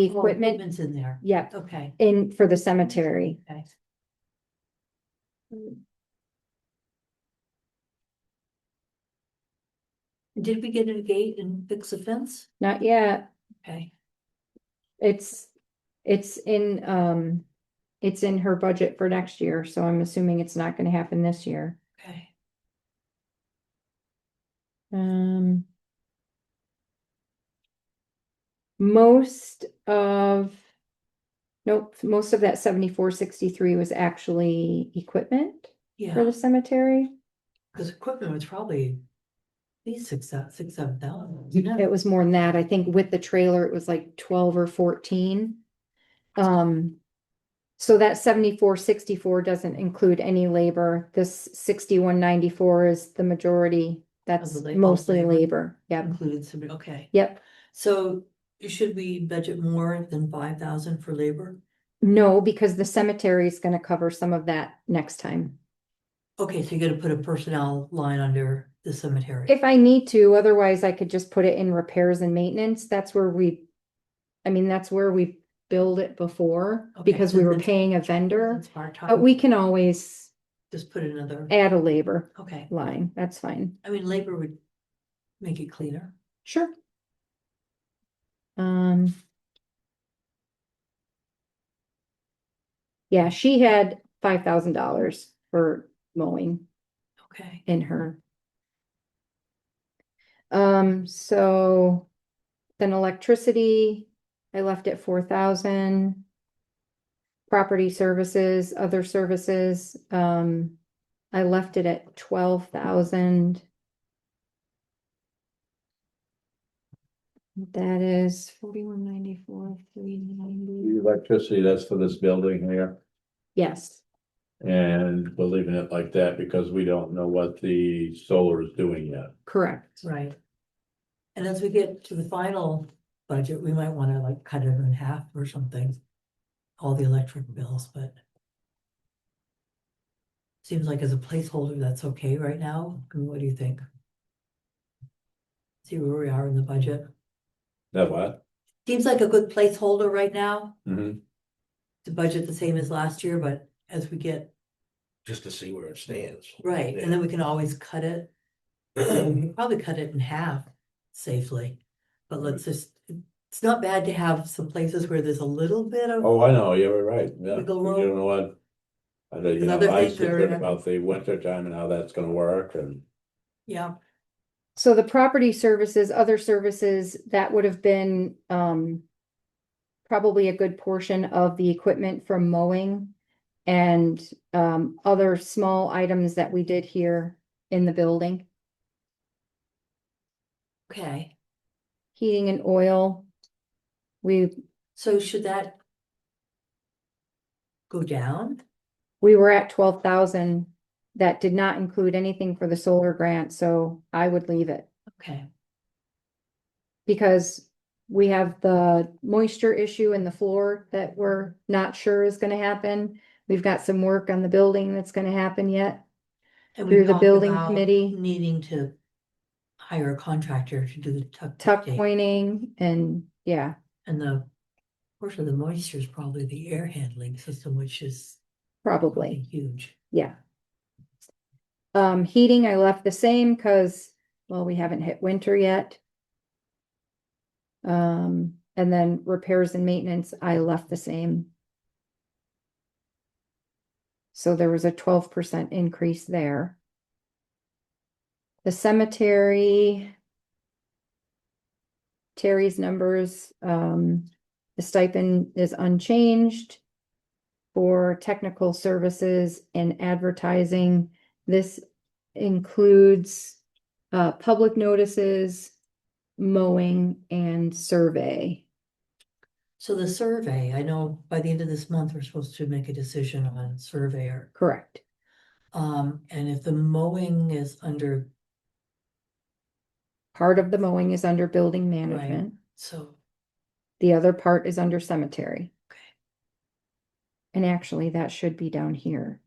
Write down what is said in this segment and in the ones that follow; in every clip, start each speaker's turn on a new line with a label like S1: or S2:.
S1: Oh,
S2: equipment,
S1: Equipment's in there,
S2: yep,
S1: okay,
S2: in for the cemetery.
S1: okay. Did we get a gate and fix the fence?
S2: Not yet,
S1: Okay,
S2: it's, it's in, um, it's in her budget for next year, so I'm assuming it's not gonna happen this year.
S1: okay.
S2: Um. Most of. Nope, most of that seventy-four sixty-three was actually equipment for
S1: Yeah,
S2: the cemetery.
S1: because equipment was probably at least six, thou- six, seven thousand. you know?
S2: It was more than that. I think with the trailer, it was like twelve or fourteen. Um. So that seventy-four sixty-four doesn't include any labor. This sixty-one ninety-four is the majority. That's
S1: la- of
S2: mostly
S1: labor.
S2: labor. Yep,
S1: Included somebody, okay.
S2: yep.
S1: So should we budget more than five thousand for labor?
S2: No, because the cemetery is gonna cover some of that next time.
S1: Okay, so you gotta put a personnel line under the cemetery.
S2: If I need to, otherwise I could just put it in repairs and maintenance. That's where we. I mean, that's where we billed it before
S1: Okay,
S2: because
S1: so
S2: we were
S1: that's-
S2: paying a vendor,
S1: It's part
S2: but
S1: time,
S2: we can always
S1: just put another,
S2: add a labor
S1: okay,
S2: line. That's fine.
S1: I mean, labor would make it cleaner.
S2: Sure. Um. Yeah, she had five thousand dollars for mowing.
S1: Okay,
S2: in her. Um, so then electricity, I left it four thousand. Property services, other services, um, I left it at twelve thousand. That is forty-one ninety-four, three ninety,
S3: The Electricity, that's for this building here,
S2: yes,
S3: and we're leaving it like that because we don't know what the solar is doing yet.
S2: correct.
S1: right. And as we get to the final budget, we might wanna like cut it in half or something. All the electric bills, but. Seems like as a placeholder, that's okay right now, I mean, what do you think? See where we are in the budget,
S3: That what?
S1: seems like a good placeholder right now,
S3: Mhm.
S1: to budget the same as last year, but as we get,
S4: just to see where it stands.
S1: right, and then we can always cut it.
S3: Mm-hmm.
S4: Yeah.
S1: probably cut it in half safely. But let's just, it's not bad to have some places where there's a little bit of,
S3: Oh, I know, yeah, we're right, yeah,
S1: We
S3: you
S1: go wrong.
S3: don't know what. I don't, you know,
S1: Another
S3: I
S1: thing
S3: should
S1: there,
S3: think
S1: yeah.
S3: about the winter time and how that's gonna work and.
S1: yeah,
S2: So the property services, other services, that would have been, um. Probably a good portion of the equipment from mowing. And, um, other small items that we did here in the building,
S1: okay.
S2: heating and oil. We,
S1: So should that go down?
S2: we were at twelve thousand. That did not include anything for the solar grant, so I would leave it.
S1: Okay,
S2: because we have the moisture issue in the floor that we're not sure is gonna happen. We've got some work on the building that's gonna happen yet.
S1: and we
S2: Through the
S1: talked
S2: building
S1: about
S2: committee.
S1: Needing to hire a contractor to do the tuck.
S2: Tuck
S1: tape.
S2: pointing and, yeah,
S1: And the, of course, the moisture is probably the air handling system, which is
S2: probably.
S1: huge.
S2: Yeah. Um, heating, I left the same because, well, we haven't hit winter yet. Um, and then repairs and maintenance, I left the same. So there was a twelve percent increase there. The cemetery. Terry's numbers, um, the stipend is unchanged for technical services and advertising. This includes uh, public notices, mowing, and survey.
S1: So the survey, I know by the end of this month, we're supposed to make a decision on surveyor.
S2: Correct.
S1: Um, and if the mowing is under,
S2: Part of the mowing is under building management.
S1: so,
S2: The other part is under cemetery.
S1: Okay.
S2: And actually, that should be down here.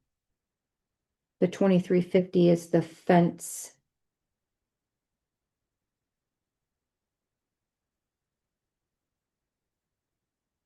S2: The twenty-three fifty is the fence